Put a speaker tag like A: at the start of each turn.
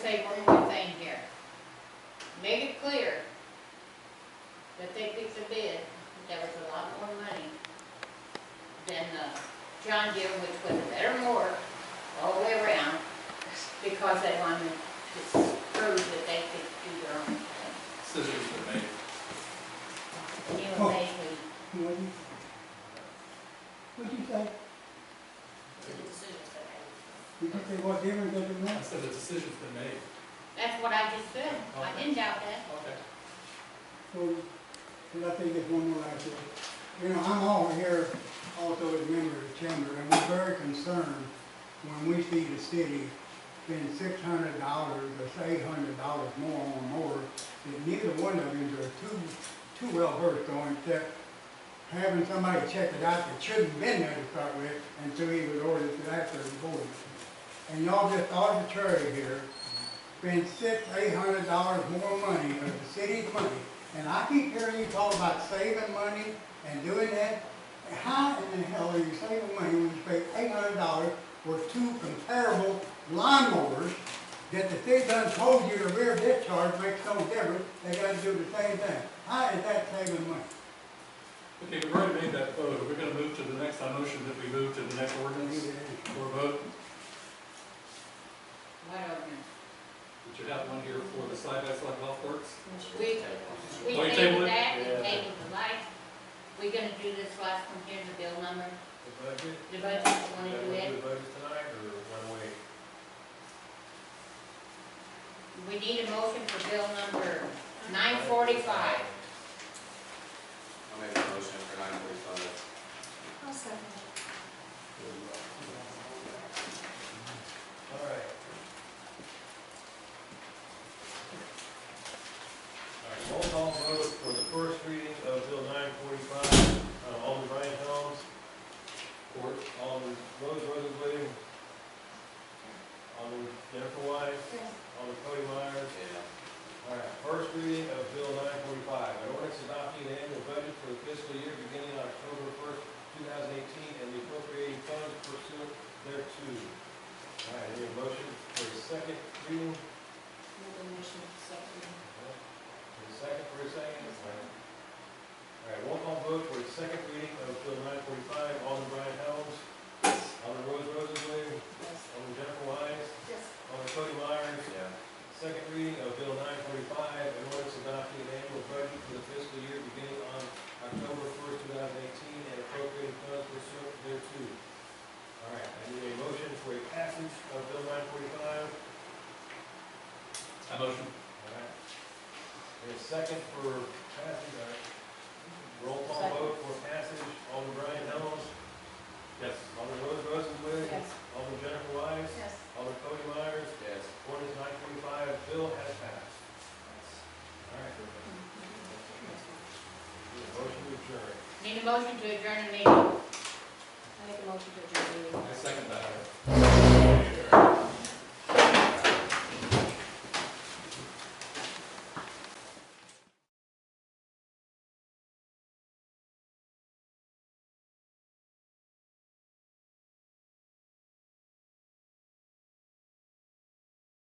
A: say one more thing here. Make it clear that they picked a bid, that was a lot more money than the John Deere, which was a better mower all the way around, because they wanted to prove that they could do their own thing.
B: Scissors for me.
A: And you and they, we
C: What'd you- what'd you say?
A: did the decisions that they-
C: Did you say what difference does it
B: I
C: make?
B: said the decision's been made.
A: That's what I just said. I didn't doubt that.
B: Okay.
C: So, and I think it's one more last thing. You know, I'm all here also as a member of the chamber, and we're very concerned when we see the city spend six hundred dollars or eight hundred dollars more on more, that neither one of them are too, too well versed on, except having somebody check it out that shouldn't have been there to start with, until he was ordered to that for the board. And y'all just arbitrary here, spend six, eight hundred dollars more money, of the city's money, and I keep hearing you talk about saving money and doing that. How in the hell are you saving money when you pay eight hundred dollars for two comparable lawnmowers that the city done told you the rear discharge makes no difference, they gotta do the same thing? How is that saving money?
B: Okay, we've already made that vote. We're gonna move to the next, I motion that we move to the next ordinance for a vote.
A: What ordinance?
B: Did you have one here for the side by side golf course?
A: We, we
B: Oh, you
A: tabled
B: tabled it?
A: that, we
B: Yeah.
A: tabled the lights. We're gonna do this last one here, the bill number,
D: The budget,
A: the budget, we
D: you
A: wanna do
D: want to do
A: it.
D: the budget tonight or one way?
A: We need a motion for bill number nine forty-five.
E: I'll make a motion for nine forty-five.
F: I'll second
D: All right. All right, roll call vote for the first reading of Bill nine forty-five, Uh, Alderman Brian Helms,
B: Or,
D: Alderman Rose Rosenblum, Alderman Jennifer Wise,
F: it.
D: Alderman Cody Myers.
E: Yeah.
D: All right, first reading of Bill nine forty-five, an ordinance adopting the annual budget for the fiscal year beginning on October first, two thousand eighteen, and the appropriating funds pursuant thereto. All right, any motion for a second reading? And a second for a second? All right, roll call vote for a second reading of Bill nine forty-five, Alderman Brian Helms, Alderman Rose Rosenblum, Alderman Jennifer Wise,
F: Yes.
D: Alderman Cody Myers,
E: Yeah.
D: Second reading of Bill nine forty-five, an ordinance adopting an annual budget for the fiscal year beginning on October first, two thousand eighteen, and appropriating funds pursuant thereto. All right, I need a motion for a passage of Bill nine forty-five.
B: I motion.
D: All right. And a second for passage, all right. Roll call
A: Second.
D: vote for passage, Alderman Brian Helms,
B: Yes.
D: Alderman Rose Rosenbluth, Alderman Jennifer Wise,
F: Yes.
D: Alderman Cody Myers,
E: Yes.
D: Ordinance nine forty-five, bill has passed. All right. Motion to adjourn.
A: Need a motion to adjourn the meeting. I make a motion to adjourn the meeting.
B: I second that.